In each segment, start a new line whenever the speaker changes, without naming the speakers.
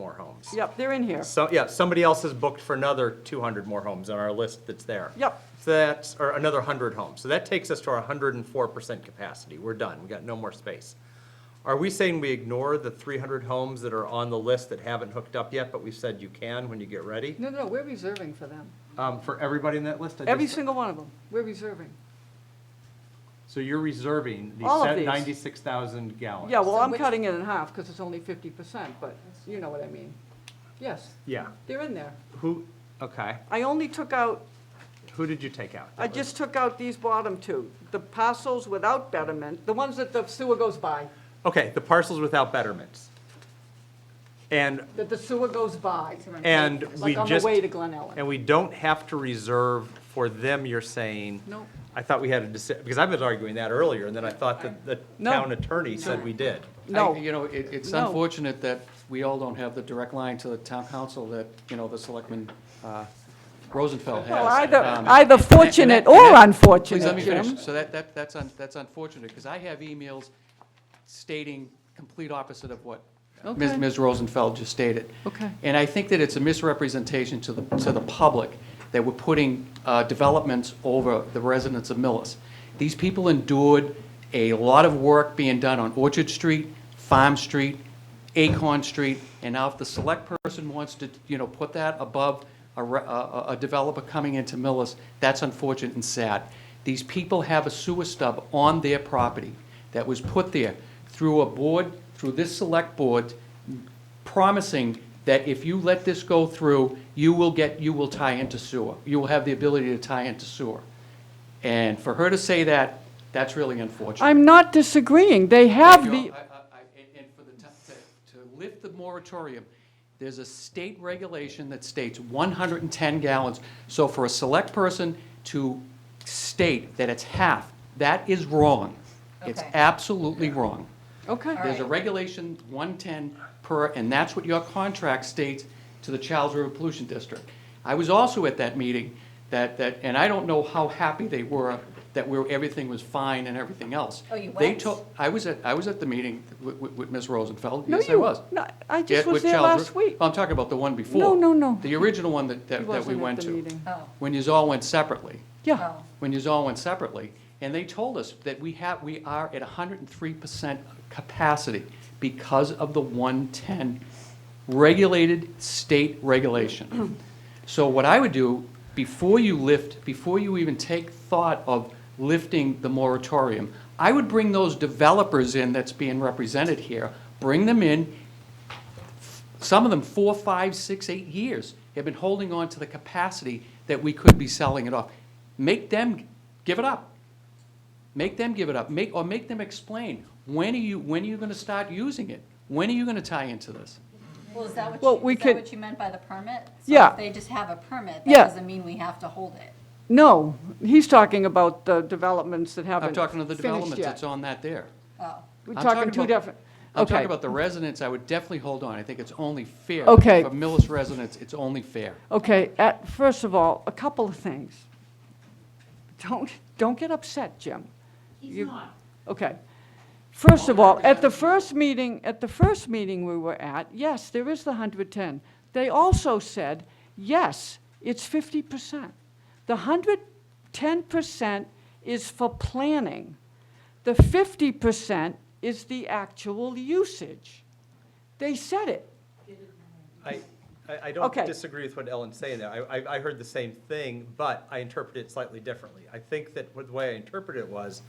more homes.
Yep, they're in here.
So, yeah, somebody else has booked for another 200 more homes on our list that's there.
Yep.
So that's, or another 100 homes. So that takes us to our 104% capacity. We're done. We got no more space. Are we saying we ignore the 300 homes that are on the list that haven't hooked up yet, but we said you can when you get ready?
No, no, we're reserving for them.
Um, For everybody in that list? I
Every
just-
single one of them, we're reserving.
So you're reserving the
All of
set
these.
96,000 gallons?
Yeah, well,
So
I'm
which-
cutting it in half because it's only fifty percent, but you know what I mean. Yes,
Yeah.
they're in there.
Who, okay,
I only took out,
who did you take out?
I just took out these bottom two, the parcels without betterment, the ones that the sewer goes by,
Okay, the parcels without betterments. And,
that the sewer goes by.
and we
Like on the
just,
way to Glen Ellen.
and we don't have to reserve for them, you're saying?
No.
I thought we had a, deci- because I was arguing that earlier, and then I thought that the
No.
town attorney said we did.
I-
No.
You know, it, it's
No.
unfortunate that we all don't have the direct line to the town council that, you know, the selectman, uh, Rosenfeld has.
Well, either,
Um,
either fortunate or
Please let
unfortunate,
me finish.
Jim.
So that, that, that's, un- that's unfortunate, because I have emails stating complete opposite of what Ms.
Okay.
Ms. Rosenfeld just stated.
Okay.
And I think that it's a misrepresentation to the, to the public that we're putting uh, developments over the residents of Millis. These people endured a lot of work being done on Orchard Street, Farm Street, Acorn Street, and now if the select person wants to, you know, put that above a, re- a- a a developer coming into Millis, that's unfortunate and sad. These people have a sewer stub on their property that was put there through a board, through this select board, promising that if you let this go through, you will get, you will tie into sewer. You will have the ability to tie into sewer. And for her to say that, that's really unfortunate.
I'm not disagreeing, they have
Thank
the,
you. I- I- I- and- And for the, to- to to lift the moratorium, there's a state regulation that states 110 gallons. So for a select person to state that it's half, that is wrong. It's
Okay.
absolutely wrong.
okay.
All
There's a
right.
regulation, 110 per, and that's what your contract states to the Charles River Pollution District. I was also at that meeting, that, that, and I don't know how happy they were that we we're, everything was fine and everything else.
Oh, you
They
went?
told, I was at, I was at the meeting with, with- with Ms. Rosenfeld,
No,
yes, I
you-
was.
no, I just
Yeah,
was
with
there last
Charles River- Oh,
week.
I'm talking about the one before.
no, no.
The original one that, that that we
wasn't at
went
the
to.
meeting.
Oh.
When you all went separately
Yeah,
when you all went separately, and they told us that we have, we are at hundred and three percent capacity because of the one-ten regulated state regulation. So what I would do, before you lift, before you even take thought of lifting the moratorium, I would bring those developers in that's being represented here, bring them in, some of them four, five, six, eight years have been holding on to the capacity that we could be selling it off. Make them give it up. Make them give it up. Make, or make them explain, when are you, when are you gonna start using it? When are you gonna tie into this?
Well, is that
Well,
what
we
you, is
could-
that what you meant by the permit? So if
Yeah.
they just have a permit,
Yeah.
that doesn't mean we have to hold it.
no, he's talking about the developments that haven't
I'm talking to the
finished
developments
yet.
that's on that there.
Oh,
We're
I'm
talking two
about-
different,
I'm talking
okay,
about the residents, I would definitely hold on. I think it's only fair.
Okay.
For Millis residents, it's only fair.
okay, at, first of all, a couple of things. Don't, don't get upset, Jim. He's not. Okay. First of all, at the first meeting, at the first meeting we were at, yes, there is the hundred ten. They also said, yes, it's fifty percent. The hundred ten percent is for planning. The fifty percent is the actual usage. They said it.
I, I I don't
Okay.
disagree with what Ellen's saying there. I, I, I heard the same thing, but I interpreted it slightly differently. I think that what- the way I interpreted it was,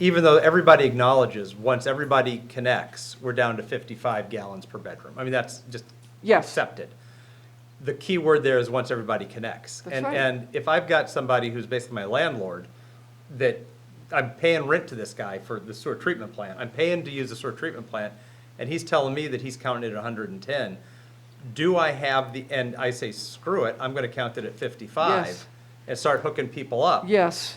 even though everybody acknowledges, once everybody connects, we're down to fifty-five gallons per bedroom. I mean, that's just
Yes.
accepted. The key word there is once everybody connects.
That's
And,
right.
and if I've got somebody who's basically my landlord, that I'm paying rent to this guy for the sewer treatment plant, I'm paying to use the sewer treatment plant, and he's telling me that he's counting it at hundred and ten, do I have the, and I say, screw it, I'm gonna count it at
Yes.
fifty-five and start hooking people up.
Yes.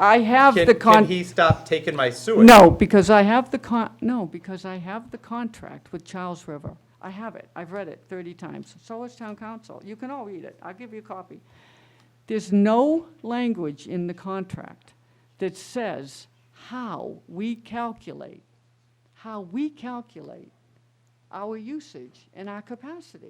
I have
Can-
the con.
Can he stop taking my sewage?
No, because I have the con, no, because I have the contract with Charles River. I have it, I've read it 30 times, so has town council. You can all read it, I'll give you a copy. There's no language in the contract that says how we calculate, how we calculate our usage and our capacity.